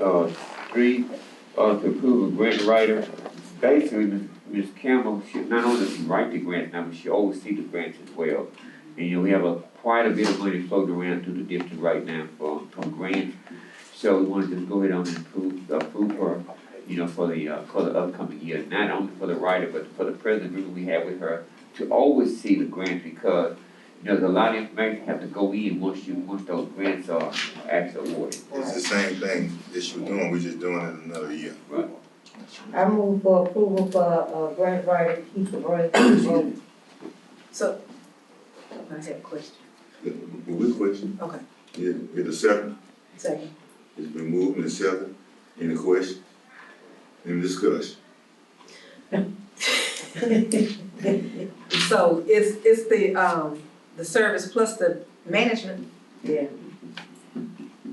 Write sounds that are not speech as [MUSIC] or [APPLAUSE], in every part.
uh, three, uh, to approve a grant writer. Basically, Ms. Ms. Campbell should not only write the grant number, she oversee the grants as well. And, you know, we have a, quite a bit of money floating around through the district right now for, for grants. So we wanna just go ahead on and approve, approve her, you know, for the, uh, for the upcoming year, not only for the writer, but for the present agreement we have with her to oversee the grants because, you know, there's a lot of information have to go in once you, once those grants are actually awarded. It's the same thing that you were doing, we're just doing it another year. I move for approval for, uh, grant writer Keith Roy. So, I have a question. Good question. Okay. Yeah, get a second, [LAUGHS] Second. it's been moved and second, any question? Any discussion? So it's, it's the, um, the service plus the management? Yeah.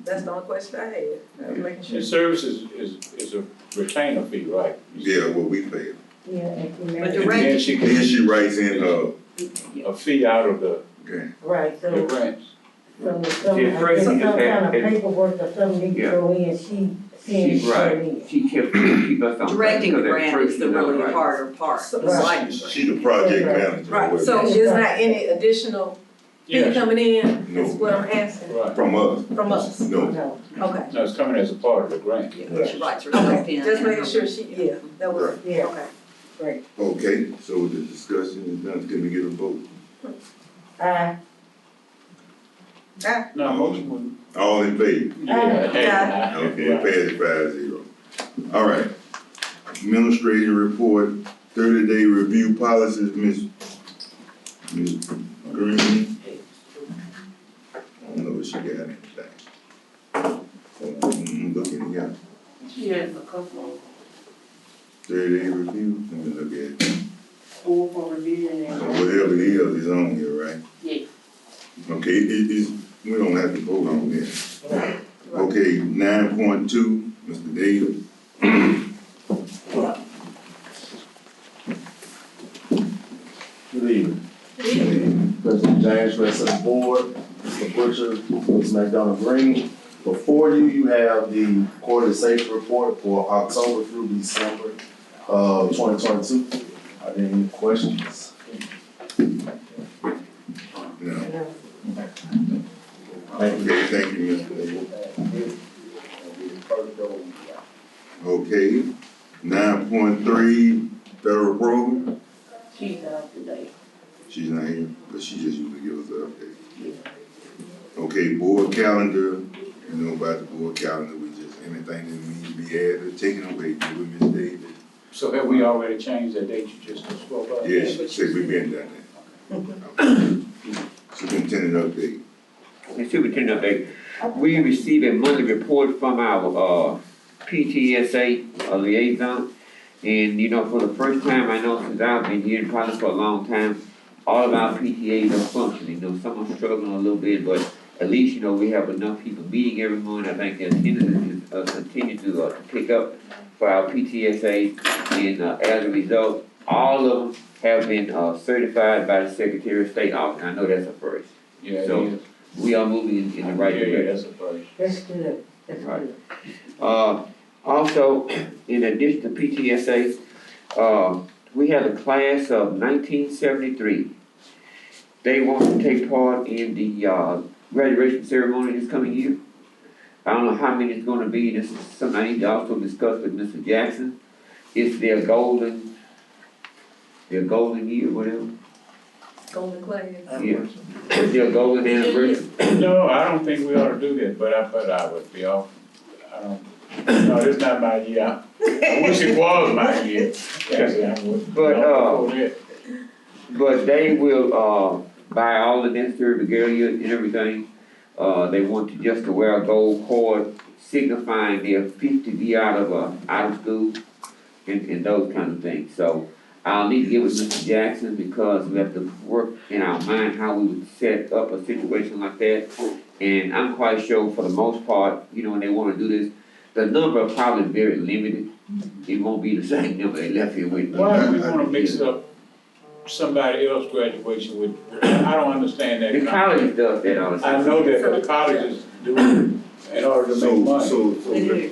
That's the only question I had. I was making sure. Your service is, is, is a retainer fee, right? Yeah, what we pay. Yeah, and he But married, the And then rate, she Then can, she writes in, uh, a fee out of the, okay, right, the so, grants. so some, I Yeah, Tracy guess some just kind of had- paperwork or something need to Yeah. go in, she, she She's right, in. she kept, keep us on. track Directing the because at grant first, is the you know, really right. harder part. So- It's like- she the project manager. right, so is not any additional fee Yeah, coming in, is No. what I'm asking, right. From us, from us? no, No, Okay. No, it's coming as a part of the grant. Yeah, she writes herself Okay, in. just making sure she, yeah, that was, yeah, okay. okay, so the discussion is done, can we get a vote? I, No, motion wouldn't. All in favor? Yeah, hey, Uh, Yeah. nah, Okay, right. passed five zero. All right. Administrative report, thirty day review policies, Ms. Ms. Green. I don't know if she got anything. Mm, Looking, yeah, She has a couple thirty day review, let me look at it. school for revision So and Whatever it is, it's on here, right? Yes. Okay, it, it is, we don't have to vote on this. Okay, nine point two, Mr. Davis. [CLEARS THROAT] Good evening. President James, rest of the board, Mr. Butcher, Ms. McDonald Green. Before you, you have the quarterly safety report for October through December of twenty twenty-two. Are there any questions? No. no. Thank you. Okay, thank you, Mr. Abel. Okay, nine point three, federal program, she's out today. she's not here, but she just usually give us an update. Okay, board calendar, you know about the board calendar, we just, anything that needs to be added, taken away, give it, Ms. Davis. So have we already changed that date you just spoke about? Yeah, she said we been done that. Superintendent update, And Superintendent update, we received a monthly report from our, uh, PTSA uh, liaison. And, you know, for the first time, I know since I've been here, probably for a long time, all of our PTAs are functioning, you know, some are struggling a little bit, but at least, you know, we have enough people meeting every month, I think the attendance is, uh, continue to, uh, to pick up for our PTSA. And, uh, as a result, all of them have been, uh, certified by the Secretary of State office, I know that's a first Yeah, it So, is. we are moving in, in the right Yeah, yeah, direction. that's a first. That's good, that's Right. good. Uh, also, [CLEARS THROAT] in addition to PTSA, uh, we had a class of nineteen seventy-three. They want to take part in the, uh, graduation ceremony this coming year. I don't know how many it's gonna be, this is something I need to also discuss with Mr. Jackson. It's their golden, their golden year, whatever, Golden class. yeah. It's their golden anniversary. No, I don't think we ought to do that, but I, but I would be off, I don't, no, this not my year. I wish it was my [LAUGHS] year. Actually, I would- But, no, uh, before that. But they will, uh, buy all the necessary regalia and everything. Uh, they want you just to wear a gold cord signifying their fifty year out of, uh, out of school and, and those kind of things. So I'll need to get with Mr. Jackson because we have to work in our mind how we would set up a situation like that. And I'm quite sure for the most part, you know, when they wanna do this, the number are probably very limited. It won't be the same number they left here with. Why do we wanna mix up somebody else's graduation with, I don't understand The that. college does that all the time. I know that the colleges do it in order to make so, money. so, so.